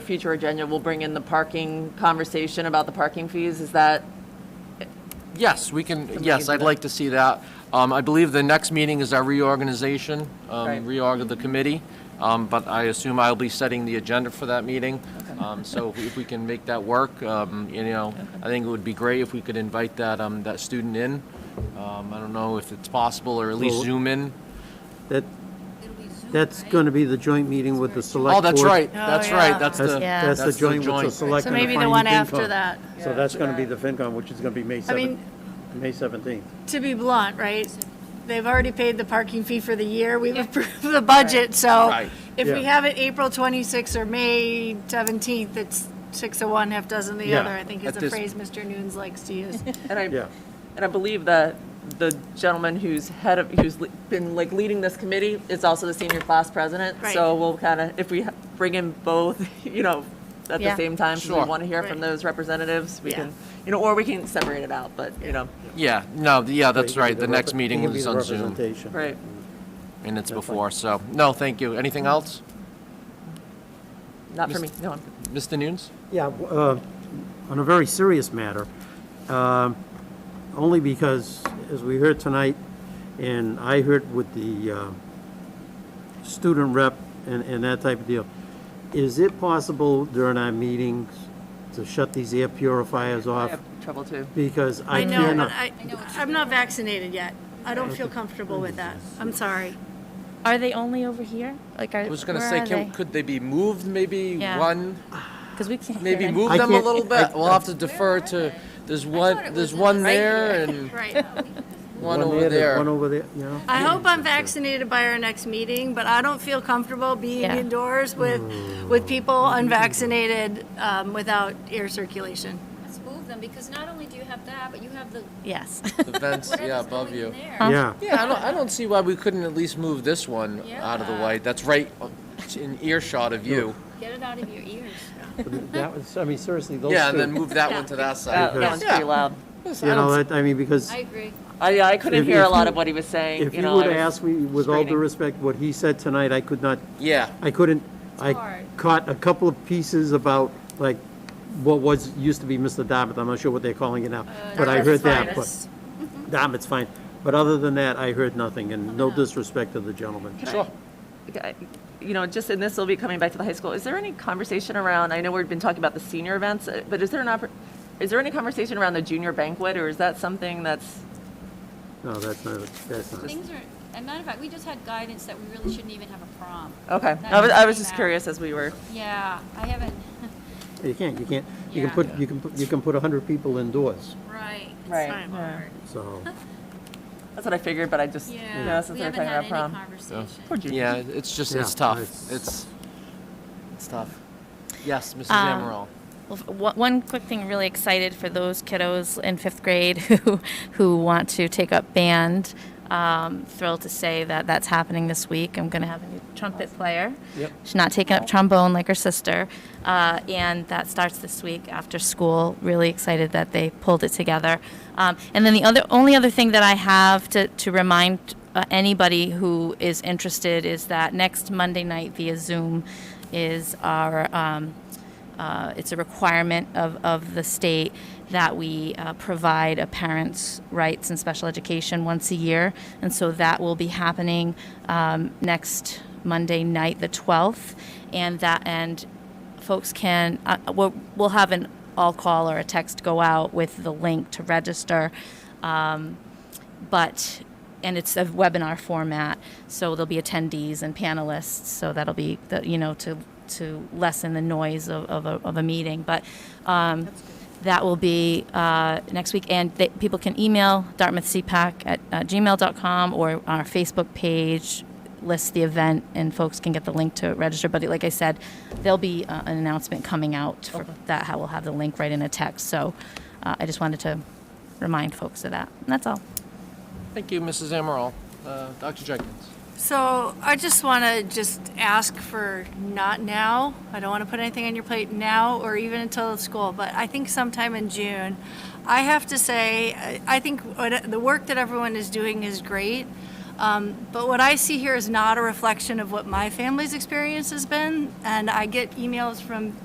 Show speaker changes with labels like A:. A: future agenda, we'll bring in the parking conversation about the parking fees. Is that,
B: Yes, we can,
A: we
B: yes,
A: can do
B: I'd
A: that.
B: like to see that. Um, I believe the next meeting is our reorganization, um,
A: Right.
B: reorg of the committee, um, but I assume I'll be setting the agenda for that meeting. Um, So if we can make that work, um, you know, I think it would be great if we could invite that, um, that student in. Um, I don't know if it's possible, or at least
C: Well-
B: Zoom in.
C: That, that's going to be the joint meeting with the select board.
B: Oh, that's right, that's
D: Oh,
B: right,
D: yeah.
B: that's the,
D: Yeah.
C: That's the
B: that's
C: joint with the select.
D: So
C: and the
D: maybe the
C: fin-
D: one after
C: FinCom.
D: that.
C: So that's going to be the FinCon, which is going to be May
D: I mean-
C: 7th, May 17th.
D: To be blunt, right? They've already paid the parking fee for the year. We've approved the budget, so
B: Right.
D: if we
C: Yeah.
D: have it April 26th or May 17th, it's six of one, half dozen the
C: Yeah.
D: other, I think
B: At
D: is the
B: this-
D: phrase Mr. Nunes likes to use.
A: and I,
C: Yeah.
A: and I believe that the gentleman who's head of, who's le- been like leading this committee is also the senior class president. So
D: Right.
A: we'll kind of, if we ha- bring in both, you know, at the
D: Yeah.
A: same time, so we
B: Sure.
A: want to hear from
D: Right.
A: those representatives, we
D: Yeah.
A: can, you know, or we can separate it out, but, you know,
B: yeah, no, yeah, that's right, the next
C: It'll
B: meeting
C: be the
B: is on Zoom,
C: representation.
A: right.
B: and it's
C: That's fine.
B: before, so, no, thank you. Anything else?
A: Not for me,
B: Mis-
A: no, I'm good.
B: Mr. Nunes?
C: Yeah, w- uh, on a very serious matter, um, only because, as we heard tonight, and I heard with the uh, student rep and and that type of deal, is it possible during our meetings to shut these air purifiers
A: I
C: off?
A: have trouble too.
C: Because I
D: I know, and
C: cannot.
D: I, I'm not vaccinated yet. I don't feel comfortable with that. I'm sorry.
E: Are they only over here? Like, are,
B: I was gonna
E: where
B: say,
E: are
B: can, could they be moved, maybe
E: Yeah.
B: one,
E: Because we can't.
B: maybe
E: hear.
B: move
C: I
B: them a
C: can't-
B: little bit? We'll have to defer to, there's one, there's one there and
D: Right.
B: one over
C: there's
B: there.
C: One over there, you know?
D: I hope I'm vaccinated by our next meeting, but I don't feel comfortable being
E: Yeah.
D: indoors with, with people unvaccinated um, without air circulation.
F: Let's move them, because not only do you have that, but you have the,
E: Yes.
B: The vents, yeah,
F: whatever's
B: above
F: going in
B: you.
F: there.
C: Yeah,
B: Yeah, I don't, I don't see why we couldn't at least move this one out of the way. That's right in earshot of you.
F: Get it out of your ears.
C: that was, I mean, seriously, those two.
B: Yeah, and then move that one to that
A: That Uh, that
B: side.
A: one's pretty loud.
C: You know, that- I mean, because.
F: I agree.
A: I, I couldn't
C: If-
A: hear a
C: if
A: lot
C: you-
A: of what he was saying,
C: If
A: you
C: you
A: know. I
C: would have
A: was-
C: asked me, with all due
A: straining.
C: respect, what he said tonight, I could not,
B: Yeah,
C: I couldn't, I
F: hard.
C: caught a couple of pieces about, like, what was, used to be Mr. Dartmouth, I'm not sure what they're calling it now,
D: Uh,
C: but I heard that, but, Dartmouth's fine. But other than that, I heard nothing, and no disrespect to the gentleman.
B: sure.
A: Okay, you know, just, and this will be coming back to the high school, is there any conversation around, I know we've been talking about the senior events, uh, but is there an oppor, is there any conversation around the junior banquet, or is that something that's,
C: No, that's not, that's not.
F: Things are, and matter of fact, we just had guidance that we really shouldn't even have a prom.
A: okay,
F: That
A: I was, I was
F: came
A: just
F: out.
A: curious as we were,
F: Yeah, I haven't,
C: You can't, you can't, you can
F: Yeah.
C: put, you can, put you can put 100 people indoors,
F: right. it's
A: Right.
F: so hard.
C: so.
A: that's what I figured, but I just, you know,
F: Yeah,
A: since
F: we
A: we were
F: haven't
A: talking
F: had
A: about prom.
F: any conversation.
A: Poor junior.
B: Yeah, it's just,
C: Yeah,
B: it's tough.
C: it's-
B: It's, it's tough. Yes, Mrs.
E: Um,
B: Amaral.
E: Well, f- one- One quick thing, really excited for those kiddos in fifth grade who, who want to take up band. Um, thrilled to say that that's happening this week. I'm going to have a new trumpet player.
C: Yep.
E: She's not taking up trombone like her sister. Uh, and that starts this week after school. Really excited that they pulled it together. Um, and then the other, only other thing that I have to, to remind uh, anybody who is interested is that next Monday night via Zoom is our um, uh, it's a requirement of, of the state that we uh, provide a parent's rights in special education once a year. And so that will be happening um, next Monday night, the 12th. And that, and folks can, uh, we'll, we'll have an all call or a text go out with the link to register but and it's a webinar format so there'll be attendees and panelists so that'll be the, you know to to lessen the noise of, of, a, of a meeting but um, that will be uh, next week and they, people can email dartmouthcpac at uh, gmail.com or our facebook page lists the event and folks can get the link to register but like i said there'll be uh, an announcement coming out for that how we'll have the link right in a text so uh, i just wanted to remind folks of that and that's all
B: Thank you, Mrs. Amaral. Uh, Dr. Jenkins.
D: So I just want to just ask for not now. I don't want to put anything on your plate now or even until it's school, but I think sometime in June. I have to say, I- I think what- the work that everyone is doing is great. Um, But what I see here is not a reflection of what my family's experience has been. And I get emails from